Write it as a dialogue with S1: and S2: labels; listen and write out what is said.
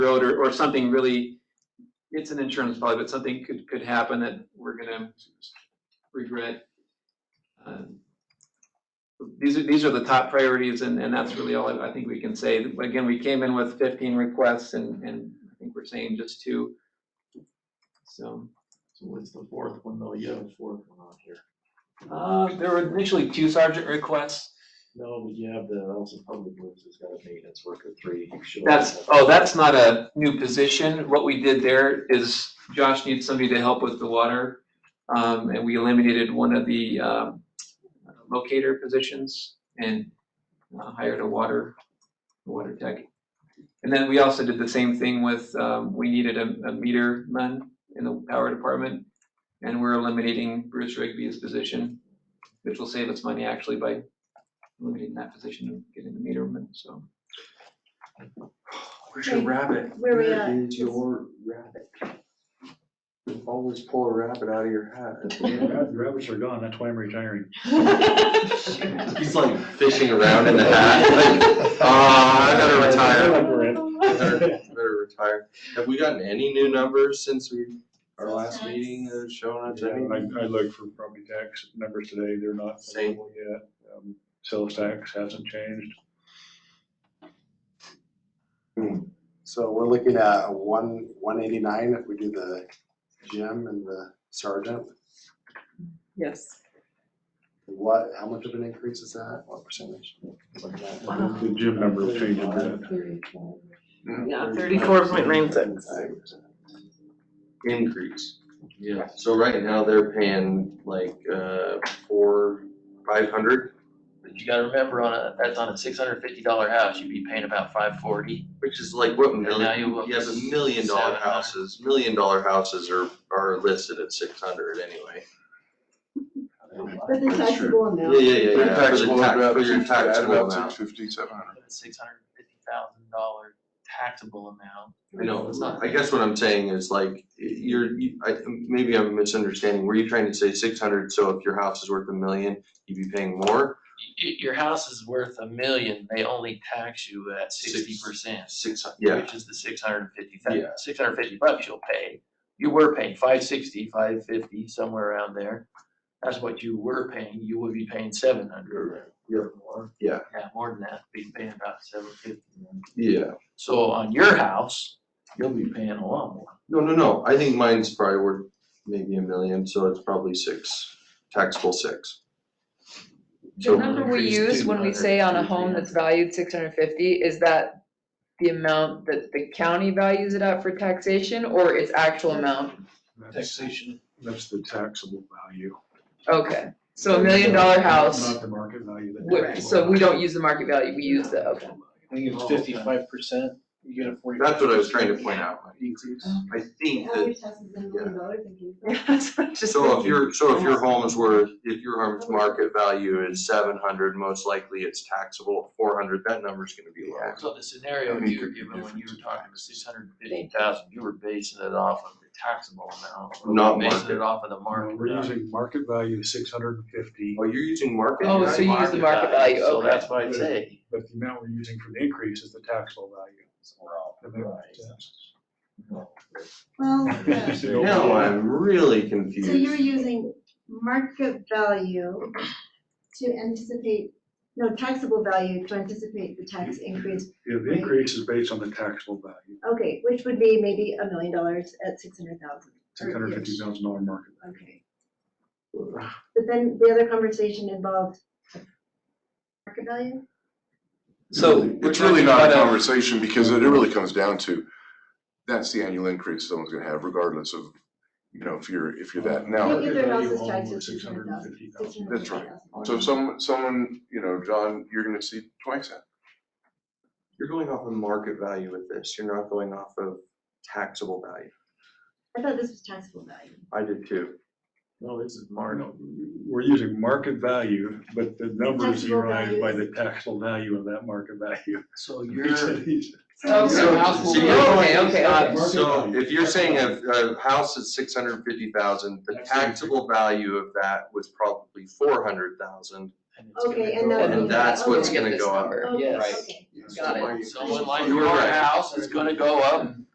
S1: road or, or something really, it's an insurance policy, but something could, could happen that we're gonna regret. Um, These are, these are the top priorities and, and that's really all I I think we can say. Again, we came in with fifteen requests and, and I think we're saying just two. So,
S2: So what's the fourth one though? You have a fourth one on here.
S1: uh, there were initially two sergeant requests.
S2: No, but you have the, also public works has got a maintenance worker three. You should
S1: That's,
S2: also have-
S1: oh, that's not a new position. What we did there is Josh needs somebody to help with the water. Um, and we eliminated one of the, um, locator positions and uh, hired a water, water tech. And then we also did the same thing with, um, we needed a, a meter man in the power department. And we're eliminating Bruce Rigby's position, which will save us money actually by eliminating that position and getting the meter man, so.
S3: Where's your
S2: rabbit?
S3: Where we at?
S2: Is your rabbit? Always pull a rabbit out of your hat.
S4: The rabbits are gone, that's why I'm retiring.
S2: He's like fishing around in the hat, like,
S5: "Ah, I gotta retire."
S2: better retire. Have we gotten any new numbers since we, our last meeting that have shown us any?
S4: I, I looked for property tax numbers today, they're not
S2: Same.
S4: available yet. Um, Sales tax hasn't changed.
S5: So we're looking at a one, one eighty-nine if we do the gym and the sergeant.
S3: Yes.
S5: What, how much of an increase is that? What percentage?
S3: Wow.
S4: The gym number will change a bit.
S3: Yeah, thirty-four point nine six.
S2: Increase. Yeah, so right now they're paying like, uh, four, five hundred,
S6: But you gotta remember on a, that's on a six hundred fifty dollar house, you'd be paying about five forty.
S2: which is like what
S6: And now
S2: million,
S6: you
S2: you have
S6: up to
S2: a million dollar
S6: 700.
S2: houses, million dollar houses are, are listed at six hundred anyway.
S3: But the taxable
S2: Yeah, yeah, yeah,
S7: They're
S2: yeah, for the
S7: taxable,
S2: tax,
S7: about-
S2: for your
S7: you add
S2: taxable
S7: about
S2: amount.
S7: six fifty, seven hundred.
S6: Six hundred fifty thousand dollar taxable amount.
S2: I know,
S6: It's not-
S2: I guess what I'm saying is like, you're, you, I, maybe I'm misunderstanding, were you trying to say six hundred, so if your house is worth a million, you'd be paying more?
S6: Y- y- your house is worth a million, they only tax you at
S2: Six-
S6: sixty percent.
S2: Six, hun- yeah,
S6: Which is the six hundred fifty
S2: Yeah.
S6: six hundred fifty bucks you'll pay. You were paying five sixty, five fifty, somewhere around there. That's what you were paying, you would be paying seven hundred.
S2: Yeah.
S6: More.
S2: Yeah.
S6: Yeah, more than that, be paying about seven fifty.
S2: yeah,
S6: So on your house, you'll be paying a lot more.
S2: no, no, no, I think mine's probably worth maybe a million, so it's probably six, taxable six.
S8: The number we use when we say on a home that's valued six hundred fifty, is that the amount that the county values it at for taxation, or its actual amount?
S4: That's- That's the taxable value.
S8: Okay, so a million dollar house,
S4: Not the market value. the
S8: wh-
S4: taxable
S8: so we
S4: value.
S8: don't use the market value, we use the, okay.
S9: I think it's fifty-five percent, you get a forty.
S2: That's what I was trying to point out, Mike. I think
S3: I
S2: that
S3: wish houses in million dollars and you-
S2: So if your, so if your home is worth, if your home's market value is seven hundred, most likely it's taxable at four hundred, that number's gonna be low.
S6: So the scenario you were given when you were talking about six hundred and fifty thousand, you were basing it off of the taxable amount. or
S2: Not
S6: Basing
S2: market.
S6: it off of the
S4: No,
S6: market.
S4: We're
S6: value.
S4: using market value six hundred and fifty,
S2: Oh, you're using market?
S8: Oh, so you use the market value,
S6: So
S8: okay.
S6: that's what I'd say.
S4: but the amount we're using for the increase is the taxable value. And then-
S3: Well, yeah.
S4: It's the
S2: Now
S4: overall-
S2: I'm really
S3: so you're
S2: confused.
S3: using market value to anticipate, no, taxable value to anticipate the tax increase.
S4: Yeah, the increase is based on the taxable value,
S3: Okay, which would be maybe a million dollars at six hundred thousand.
S4: six hundred fifty thousand dollar market. value.
S3: Okay. But then the other conversation involved market value?
S1: So.
S7: Really,
S1: we're
S7: It's really
S1: talking
S7: not a
S1: about
S7: conversation because it really comes down to, that's the annual increase someone's gonna have regardless of, you know, if you're, if you're that. Now,
S3: Maybe their house
S4: value
S3: is
S4: home
S3: taxed at
S4: was $650,000.
S3: $650,000.
S7: That's right. so if someone, someone, you know, John, you're gonna see twice that.
S2: You're going off of market value with this, you're not going off of taxable value.
S3: I thought this was taxable value.
S2: I did too.
S6: No, this is
S4: Or
S6: market.
S4: no, We're using market value, but the numbers
S3: Taxable
S4: derived by
S3: value.
S4: the taxable value of that market value.
S6: So
S4: He
S6: you're,
S4: said he's-
S8: Oh,
S2: So-
S8: so house will
S2: so
S8: be-
S2: you're going-
S8: okay, okay, okay.
S2: So if you're saying a, a house is six hundred fifty thousand, the
S4: That's
S2: taxable value of that was probably four hundred thousand.
S6: and it's gonna
S3: Okay, and
S6: go
S3: that-
S6: up.
S2: And that's what's
S3: Okay.
S2: gonna go up.
S8: number.
S3: Oh,
S6: Yes.
S3: okay.
S8: Got it.
S6: Someone like
S2: You were
S6: your
S2: right.
S6: house is gonna go up